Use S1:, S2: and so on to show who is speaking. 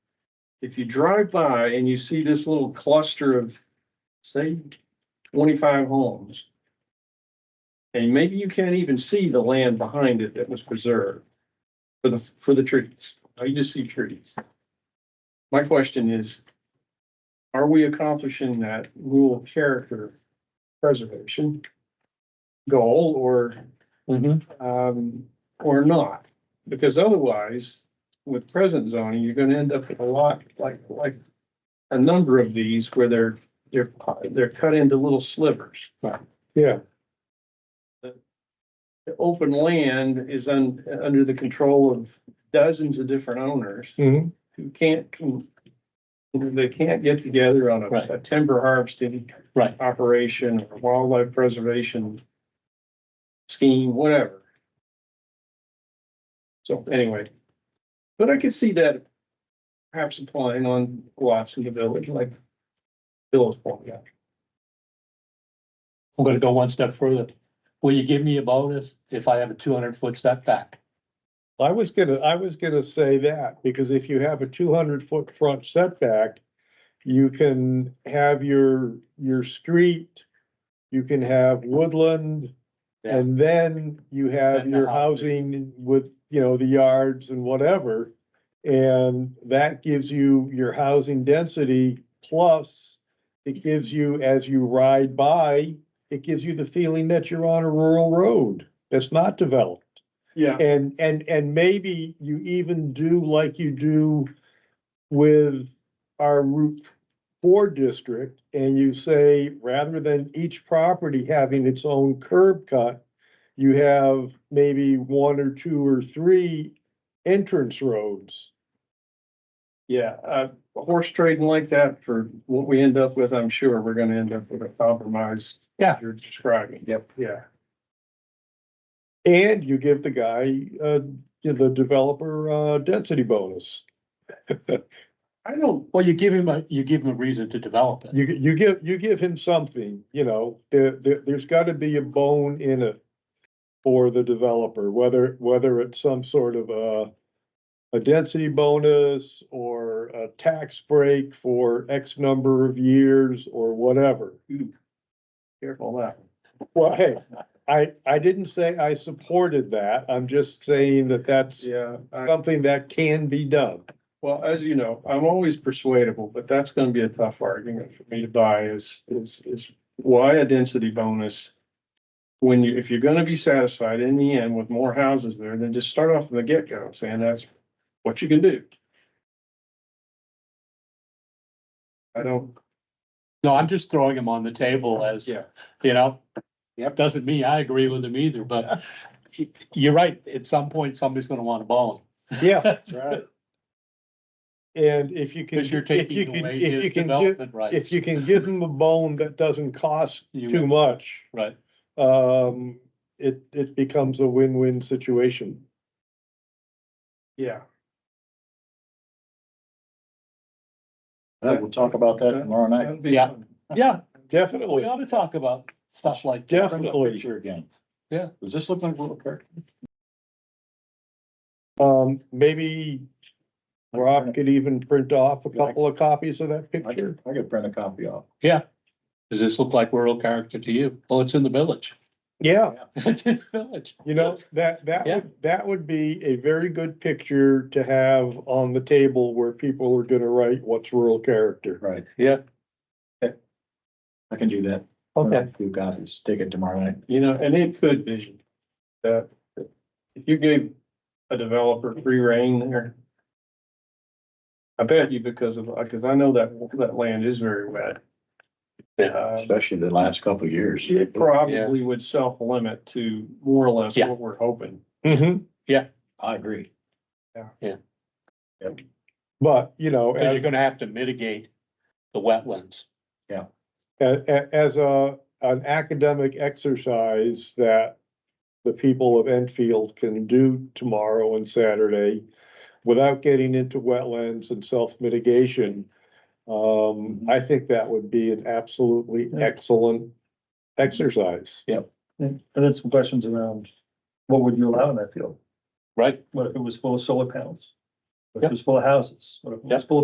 S1: if you drive by and you see this little cluster of, say, twenty-five homes. And maybe you can't even see the land behind it that was preserved for the, for the trees. Now you just see trees. My question is, are we accomplishing that rural character preservation goal or um, or not. Because otherwise, with present zoning, you're gonna end up with a lot, like, like a number of these where they're, they're, they're cut into little slivers.
S2: Yeah,
S1: The open land is un, under the control of dozens of different owners
S2: mhm,
S1: who can't, who- they can't get together on
S3: Right.
S1: a- a timber harvesting
S3: Right.
S1: operation or wildlife preservation scheme, whatever. So anyway, but I could see that perhaps applying on lots in the village like Bill was pointing out.
S3: I'm gonna go one step further. Will you give me a bonus if I have a two hundred foot setback?
S2: I was gonna, I was gonna say that, because if you have a two hundred foot front setback, you can have your, your street, you can have woodland,
S3: Yeah.
S2: and then you have
S3: And the
S2: your
S3: house.
S2: housing with, you know, the yards and whatever. And that gives you your housing density, plus it gives you, as you ride by, it gives you the feeling that you're on a rural road that's not developed.
S1: Yeah.
S2: And, and, and maybe you even do like you do with our Route Four district. And you say, rather than each property having its own curb cut, you have maybe one or two or three entrance roads.
S1: Yeah, uh, horse trading like that for what we end up with, I'm sure we're gonna end up with a compromise.
S3: Yeah.
S1: You're describing.
S3: Yep.
S1: Yeah,
S2: And you give the guy, uh, the developer, uh, density bonus.
S1: I don't,
S3: Well, you give him a, you give him a reason to develop it.
S2: You, you give, you give him something, you know, there, there, there's gotta be a bone in it for the developer, whether, whether it's some sort of a a density bonus or a tax break for X number of years or whatever.
S1: careful of that.
S2: Well, hey, I, I didn't say I supported that. I'm just saying that that's
S1: Yeah. I-
S2: something that can be done.
S1: Well, as you know, I'm always persuadable, but that's gonna be a tough argument for me to buy is, is, is why a density bonus? When you, if you're gonna be satisfied in the end with more houses there, then just start off from the get-go saying that's what you can do. I don't,
S3: No, I'm just throwing him on the table as,
S1: Yeah.
S3: you know. Doesn't mean I agree with him either, but y- you're right. At some point, somebody's gonna want a bone.
S2: Yeah. And if you can.
S3: Cause you're
S2: if you
S3: taking
S2: can-
S3: away
S2: if you
S3: his
S2: can give-
S3: development rights.
S2: If you can give them a bone that doesn't cost
S3: You
S2: too
S3: will.
S2: much,
S3: Right.
S2: um, it, it becomes a win-win situation.
S1: yeah,
S4: Yeah, we'll talk about that tomorrow night.
S1: that'd be
S3: Yeah.
S1: fun.
S3: Yeah, we
S2: Definitely.
S3: ought to talk about stuff like that.
S4: Bring up
S2: Definitely.
S4: Picture again.
S3: Yeah.
S4: Does this look like a little character?
S2: Um, maybe Rob could even print off a couple of copies of that
S4: I
S2: picture.
S4: could, I could print a copy off.
S3: Does this look like rural character to you? Well, it's in the village.
S2: Yeah,
S3: It's in the village.
S2: you know, that, that
S3: Yeah.
S2: would, that would be a very good picture to have on the table where people are gonna write what's rural character.
S4: Right,
S3: Yeah.
S4: I can do that.
S3: Okay.
S4: Few copies, take it tomorrow night.
S1: You know, and it could be that if you gave a developer free reign there. I bet you because of, because I know that, that land is very wet. Uh,
S4: Especially the last couple of years.
S1: It probably would self-limit to more or less
S3: Yeah.
S1: what we're hoping.
S2: Mhm.
S4: I agree.
S2: But, you know,
S3: Cause
S2: as
S3: you're gonna have to mitigate the wetlands.
S2: a- a- as a, an academic exercise that the people of Enfield can do tomorrow and Saturday without getting into wetlands and self-mitigation. Um, I think that would be an absolutely excellent exercise.
S5: And and then some questions around, what would you allow in that field?
S3: Right.
S5: What if it was full of solar panels? What if
S3: Yep.
S5: it was full of houses? What if it was
S3: Yep.
S5: full of